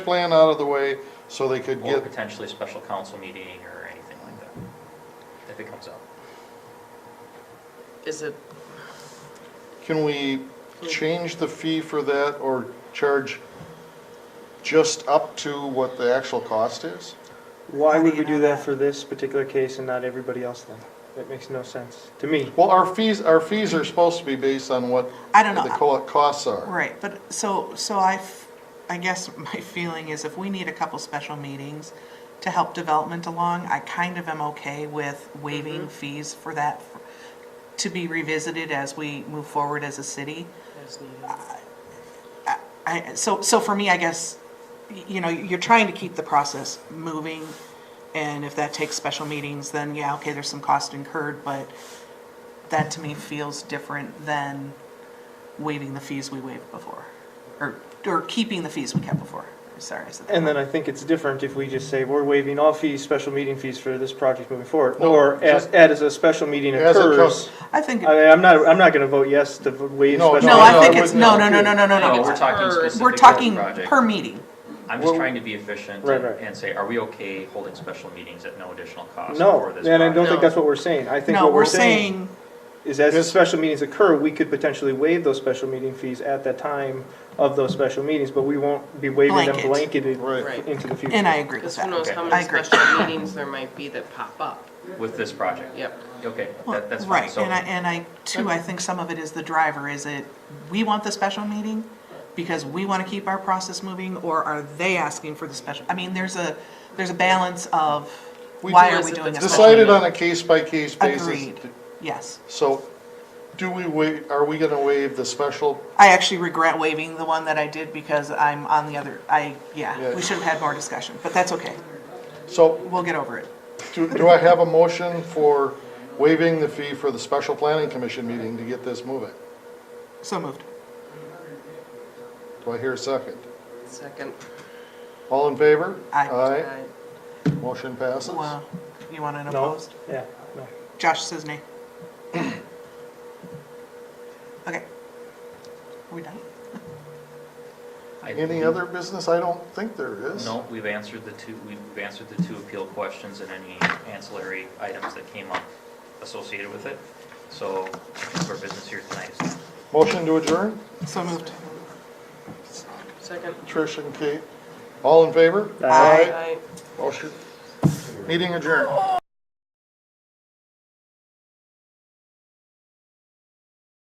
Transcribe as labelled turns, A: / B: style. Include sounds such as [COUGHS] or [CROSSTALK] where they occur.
A: plan out of the way so they could
B: Or
A: get,
B: potentially a special council meeting or anything like that, if it comes up.
C: Is it,
A: can we change the fee for that or charge just up to what the actual cost is?
D: Why
C: How do
D: would
C: you
D: we do
C: know
D: that
C: that?
D: for this particular case and not everybody else then? That makes no sense to me.
A: Well, our fees, our fees are supposed to be based on what
C: I don't
A: the
C: know,
A: co- costs are.
C: right, but, so, so I, f- I guess [LAUGHS] my feeling is if we need a couple special meetings to help development along, I kind of am okay with waiving fees for that, f- to be revisited as we move forward as a city. I- I, so, so for me, I guess, y- you know, you're trying to keep the process moving, and if that takes special meetings, then yeah, okay, there's some cost incurred, but that to me feels different than waiving the fees we waived before, or, or keeping the fees we kept before, sorry, I said that.
D: And then I think it's different if we just say we're waiving all fees, special meeting fees for this project moving forward.
A: No,
D: Or as,
A: just-
D: as a special meeting
A: As it
D: occurs.
A: comes,
C: I think,
D: I mean, I'm not, I'm not gonna vote yes to v- waive
A: No,
D: special.
C: no,
A: no,
D: meeting.
A: no,
C: I think
A: I
C: it's,
A: wouldn't-
C: no, no, no, no, no, no,
B: No, we're
C: no.
B: talking specifically.
C: We're talking
B: for the project.
C: per meeting,
B: I'm just
A: Well-
B: trying to be efficient
D: Right,
B: and
D: right.
B: and say, are we okay holding special meetings at no additional cost
D: No,
B: for this
D: and I don't think
B: project?
D: that's what we're saying. I think
C: no,
D: what
C: we're
D: we're saying
C: saying,
D: is as the
A: Yes.
D: special meetings occur, we could potentially waive those special meeting fees at the time of those special meetings, but we won't be waiving them
C: Blanket.
D: blanketed
A: Right.
D: into the future.
C: and I agree
E: Because
C: with that.
E: who knows how
C: I
E: many
C: agree.
E: special
C: [COUGHS]
E: meetings there might be that pop up.
B: With this project?
E: Yep.
B: Okay,
C: Well,
B: that, that's fine,
C: Right,
B: so,
C: and I, and I, too, I think some of it is the driver, is it, we want the special meeting because we want to keep our process moving, or are they asking for the special, I mean, there's a, there's a balance of,
A: We
C: why
A: do-
C: are we doing a special?
A: Decided
C: meeting?
A: on a case-by-case basis.
C: Agreed, yes.
A: So do we wait, are we gonna waive the special?
C: I actually regret waiving the one that I did because I'm on the other, I, yeah,
A: Yeah.
C: we should have had more discussion, but that's okay,
A: So
C: we'll get over it.
A: do, do I have a motion for waiving the fee for the special planning commission meeting to get this moving?
C: So moved.
A: Do I hear a second?
E: Second.
A: All in favor?
C: Aye.
A: Aye, motion passes.
C: Well, you want an
D: No,
C: opposed?
D: yeah, no.
C: Josh says nay. Okay. Are we done?
B: I
A: Any
B: believe-
A: other business? I don't think there is.
B: No, we've answered the two, we've answered the two appeal questions and any ancillary items that came up associated with it. So, our business here tonight is done.
A: Motion to adjourn?
C: So moved.
E: Second.
A: Trish and Kate, all in favor?
D: Aye.
E: Aye.
A: Motion, meeting adjourned.